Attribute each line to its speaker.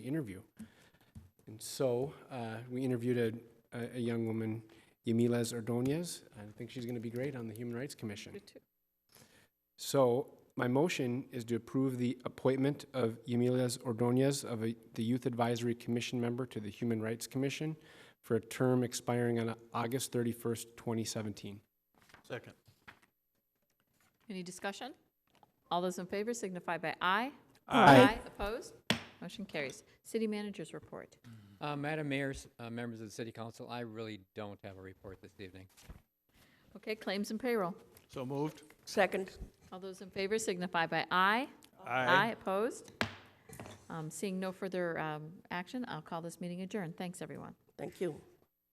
Speaker 1: interview. And so uh, we interviewed a, a, a young woman, Yamiles Ordonez. I think she's going to be great on the Human Rights Commission. So my motion is to approve the appointment of Yamiles Ordonez of a- the Youth Advisory Commission member to the Human Rights Commission for a term expiring on August 31st, 2017.
Speaker 2: Second.
Speaker 3: Any discussion? All those in favor signify by aye.
Speaker 1: Aye.
Speaker 3: Opposed? Motion carries. City managers report.
Speaker 4: Uh, Madam Mayor, s- uh, members of the City Council, I really don't have a report this evening.
Speaker 3: Okay, claims and payroll.
Speaker 2: So moved.
Speaker 5: Second.
Speaker 3: All those in favor signify by aye. Opposed? Um, Seeing no further um, action, I'll call this meeting adjourned. Thanks, everyone.
Speaker 5: Thank you.